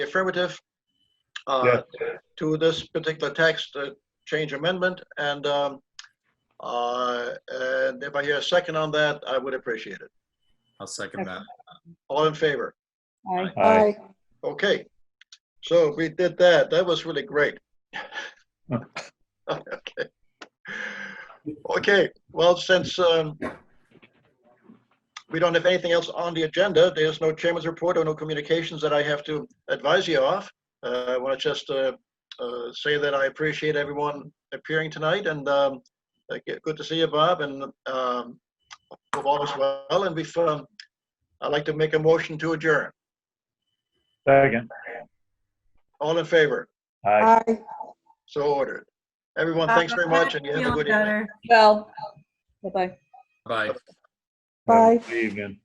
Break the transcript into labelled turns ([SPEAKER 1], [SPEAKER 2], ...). [SPEAKER 1] affirmative uh,
[SPEAKER 2] Yes.
[SPEAKER 1] to this particular text uh, change amendment, and um, uh, and if I hear a second on that, I would appreciate it.
[SPEAKER 3] I'll second that.
[SPEAKER 1] All in favor?
[SPEAKER 4] Aye.
[SPEAKER 2] Aye.
[SPEAKER 1] Okay. So we did that. That was really great. Okay. Okay, well, since um, we don't have anything else on the agenda, there's no chairman's report or no communications that I have to advise you of. Uh, I want to just uh, uh, say that I appreciate everyone appearing tonight and um, uh, g- good to see you, Bob, and um, hope all is well. And we've, um, I'd like to make a motion to adjourn.
[SPEAKER 2] Second.
[SPEAKER 1] All in favor?
[SPEAKER 2] Aye.
[SPEAKER 1] So ordered. Everyone, thanks very much and you have a
[SPEAKER 5] Feeling
[SPEAKER 1] good evening.
[SPEAKER 5] better.
[SPEAKER 4] Well, bye-bye.
[SPEAKER 3] Bye.
[SPEAKER 2] Bye. Good evening.